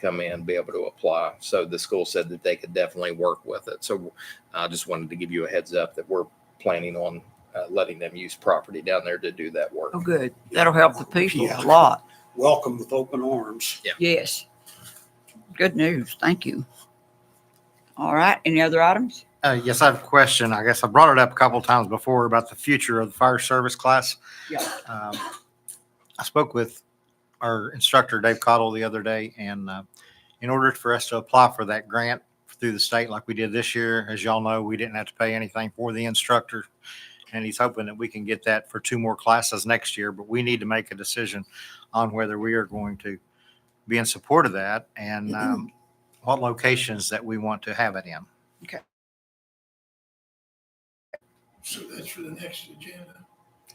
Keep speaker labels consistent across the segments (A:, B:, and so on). A: come in, be able to apply. So the school said that they could definitely work with it. So I just wanted to give you a heads up that we're planning on uh, letting them use property down there to do that work.
B: Oh, good. That'll help the people
C: Yeah.
B: a lot.
C: welcome with open arms.
B: Yes. Good news. Thank you. All right. Any other items?
D: Uh, yes, I have a question. I guess I brought it up a couple times before about the future of the fire service class.
B: Yeah.
D: Um, I spoke with our instructor, Dave Cottle, the other day, and uh, in order for us to apply for that grant through the state like we did this year, as y'all know, we didn't have to pay anything for the instructor. And he's hoping that we can get that for two more classes next year, but we need to make a decision on whether we are going to be in support of that and um, what locations that we want to have it in.
E: So that's for the next agenda.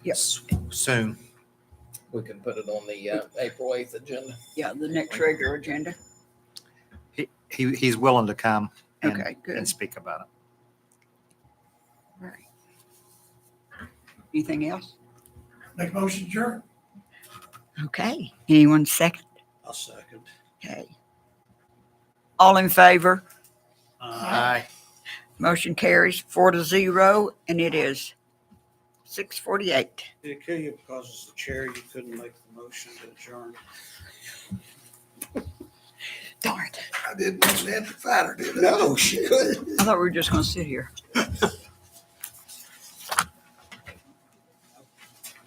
B: Yes.
D: Soon.
A: We can put it on the uh, April 8th agenda.
B: Yeah, the next regular agenda.
D: he, he- he's willing to come and,
B: Okay, good.
D: and speak about it.
B: Right. Anything else?
E: Make a motion, adjourn.
B: Okay. Anyone second?
C: I'll second.
B: Okay. All in favor?
C: Uh,
B: Motion carries four to zero, and it is six forty-eight.
C: Did it kill you because as the chair, you couldn't make the motion to adjourn?
B: Darn.
E: I did once after fighter did it.
C: No, she couldn't.
B: I thought we were just gonna sit here.